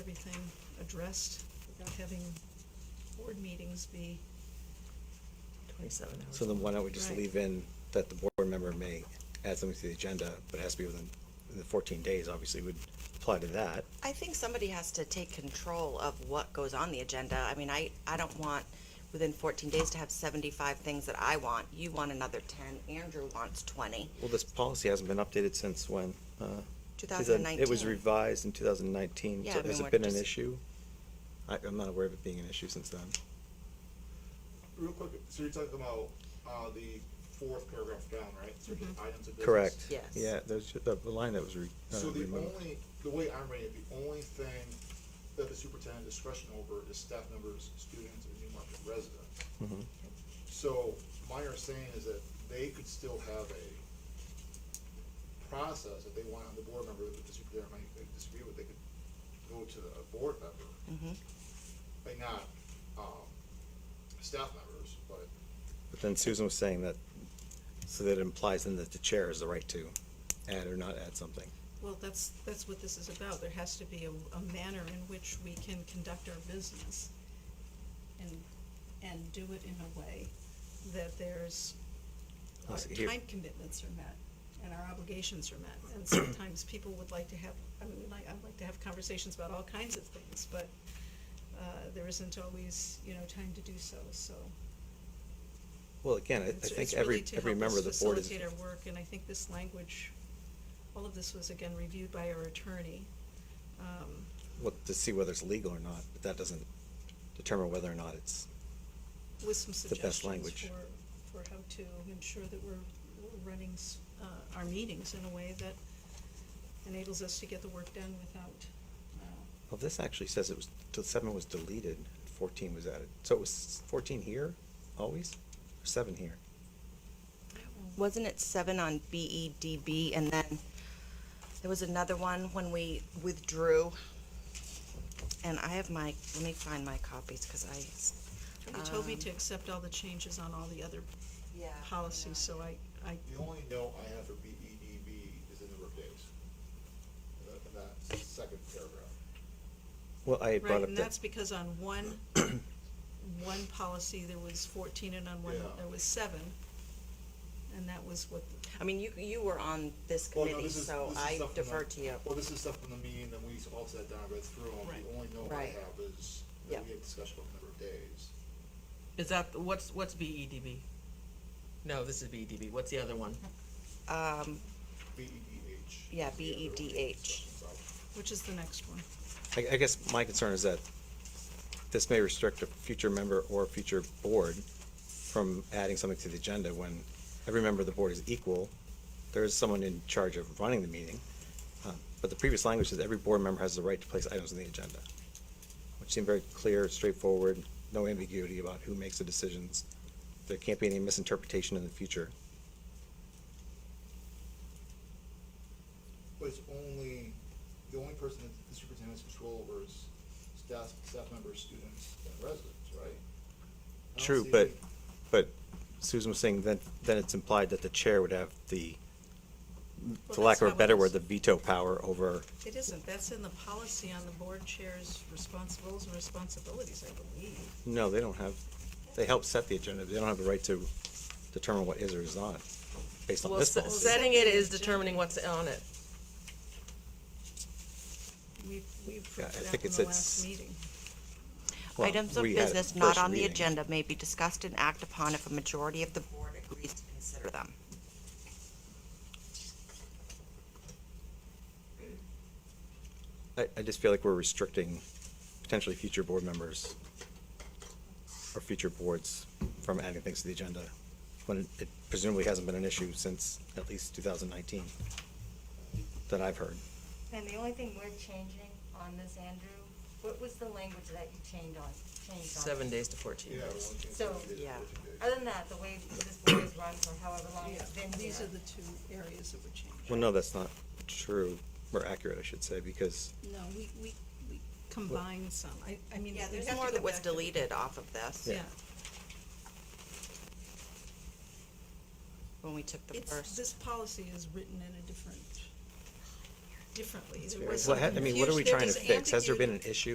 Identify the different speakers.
Speaker 1: everything addressed without having board meetings be,
Speaker 2: Twenty-seven hours.
Speaker 3: So then why don't we just
Speaker 1: Right.
Speaker 3: leave in that the board member may add something to the agenda, but it has to be within the fourteen days, obviously would apply to that.
Speaker 2: I think somebody has to take control of what goes on the agenda. I mean, I, I don't want within fourteen days to have seventy-five things that I want. You want another ten, Andrew wants twenty.
Speaker 3: Well, this policy hasn't been updated since when? Uh,
Speaker 2: 2019.
Speaker 3: It was revised in two thousand nineteen.
Speaker 2: Yeah, I
Speaker 3: Has
Speaker 2: mean,
Speaker 3: it
Speaker 2: we're
Speaker 3: been an
Speaker 2: just-
Speaker 3: issue? I, I'm not aware of it being an issue since then.
Speaker 4: Real quick, so you're talking about, uh, the fourth paragraph down, right? So the items of business.
Speaker 3: Correct.
Speaker 2: Yes.
Speaker 3: Yeah, there's the the line that was re- uh,
Speaker 4: So the
Speaker 3: removed.
Speaker 4: only, the way I'm reading it, the only thing that the superintendent discretion over is staff members, students, and New Market residents. So my understanding is that they could still have a process that they want on the board member, that the superintendent might disagree with, they could go to a board member. Like not, um, staff members, but
Speaker 3: But then Susan was saying that, so that implies then that the chair has the right to add or not add something.
Speaker 1: well, that's, that's what this is about. There has to be a, a manner in which we can conduct our business and, and do it in a way that there's, our
Speaker 3: Let's see here.
Speaker 1: time commitments are met and our obligations are met. And sometimes people would like to have, I mean, we like, I'd like to have conversations about all kinds of things, but, uh, there isn't always, you know, time to do so, so.
Speaker 3: Well, again, I, I
Speaker 1: It's-
Speaker 3: think
Speaker 1: it's really
Speaker 3: every,
Speaker 1: to
Speaker 3: every
Speaker 1: help
Speaker 3: member of
Speaker 1: us
Speaker 3: the board is.
Speaker 1: Facilitate our work, and I think this language, all of this was again reviewed by our attorney. Um,
Speaker 3: well, to see whether it's legal or not, but that doesn't determine whether or not it's,
Speaker 1: with some
Speaker 3: The best
Speaker 1: suggestions
Speaker 3: language.
Speaker 1: for, for how to ensure that we're, we're running, s- uh, our meetings in a way that enables us to get the work done without, uh,
Speaker 3: well, this actually says it was, till seven was deleted, fourteen was added. So it was fourteen here, always, or seven here?
Speaker 2: Wasn't it seven on BEDB and then there was another one when we withdrew? And I have my, let me find my copies because I. s-
Speaker 1: somebody told me
Speaker 2: um,
Speaker 1: to accept all the changes on all the other policies, so I, I,
Speaker 4: The only note I have for B E D B is the number of days. Uh, In that second paragraph.
Speaker 3: Well, I had brought
Speaker 1: right,
Speaker 3: up
Speaker 1: and
Speaker 3: that,
Speaker 1: that's because on one, one policy, there was fourteen, and on one,
Speaker 4: Yeah.
Speaker 1: there was seven. And that was what,
Speaker 2: I mean, you, you were on this
Speaker 4: Well, no,
Speaker 2: committee,
Speaker 4: this is-
Speaker 2: so
Speaker 4: this is
Speaker 2: I
Speaker 4: stuff from the-
Speaker 2: defer to you.
Speaker 4: Well, this is stuff from the meeting, then we all sat down, read through them.
Speaker 1: Right.
Speaker 4: The only note I
Speaker 2: Right.
Speaker 4: have is
Speaker 2: Yeah.
Speaker 4: that we had discussion about the number of days.
Speaker 5: Is that what's what's E BEDB? No, this is BEDB. What's the other one?
Speaker 2: Um,
Speaker 4: B E D H.
Speaker 2: Yeah, E BEDH.
Speaker 1: which is the next one.
Speaker 3: I, I guess my concern is that this may restrict a future member or future board from adding something to the agenda when every member of the board is equal. There is someone in charge of running the meeting. Uh, But the previous language says every board member has the right to place items on the agenda, which seemed very clear, straightforward, no ambiguity about who makes the decisions. There can't be any misinterpretation in the future.
Speaker 4: But it's only, the only person that the superintendent has control over is staff, staff members, students, and residents, right? I don't
Speaker 3: True,
Speaker 4: see-
Speaker 3: but, but Susan was saying then, then it's implied that the chair would have the,
Speaker 1: Well,
Speaker 3: for lack
Speaker 1: that's not
Speaker 3: of a
Speaker 1: what
Speaker 3: better word,
Speaker 1: this-
Speaker 3: the veto power over,
Speaker 1: It isn't, that's in the policy on the board chair's respons- roles and responsibilities, I believe.
Speaker 3: no, they don't have, they help set the agenda, they don't have the right to determine what is or is not, based on
Speaker 5: Well,
Speaker 3: this
Speaker 5: se-
Speaker 3: policy.
Speaker 5: setting it is determining what's on it.
Speaker 1: We've, we've
Speaker 3: Yeah, I
Speaker 1: proved
Speaker 3: think
Speaker 1: that in
Speaker 3: it's-
Speaker 1: the
Speaker 3: it's-
Speaker 1: last meeting.
Speaker 3: Well,
Speaker 2: Items of
Speaker 3: we had it
Speaker 2: business
Speaker 3: the
Speaker 2: not
Speaker 3: first
Speaker 2: on the
Speaker 3: reading.
Speaker 2: agenda may be discussed and act upon if a majority of the board agrees to consider them.
Speaker 3: I, I just feel like we're restricting potentially future board members or future boards from adding things to the agenda, when it presumably hasn't been an issue since at least two thousand nineteen, that I've heard.
Speaker 6: And the only thing we're changing on this, Andrew, what was the language that you changed on, changed on?
Speaker 5: Seven days to fourteen
Speaker 4: Yeah,
Speaker 5: days.
Speaker 4: one thing.
Speaker 6: So-
Speaker 2: Yeah.
Speaker 6: Other than that, the way this board is run for however long it's been here.
Speaker 1: These are the two areas that were changed.
Speaker 3: Well, no, that's not true, or accurate, I should say, because
Speaker 1: No, we, we, we combined some, I, I mean.
Speaker 2: Yeah,
Speaker 1: we
Speaker 2: there's
Speaker 1: have to
Speaker 2: more
Speaker 1: go
Speaker 2: that was
Speaker 1: back to the-
Speaker 2: deleted off of this
Speaker 1: Yeah,
Speaker 2: when we took the
Speaker 1: it's,
Speaker 2: first.
Speaker 1: this policy is written in a different differently. There
Speaker 3: Well,
Speaker 1: was some
Speaker 3: ha- I mean, what are we
Speaker 1: confusion. There
Speaker 3: trying to
Speaker 1: was
Speaker 3: fix? Has there
Speaker 1: ambiguity.
Speaker 3: been an issue?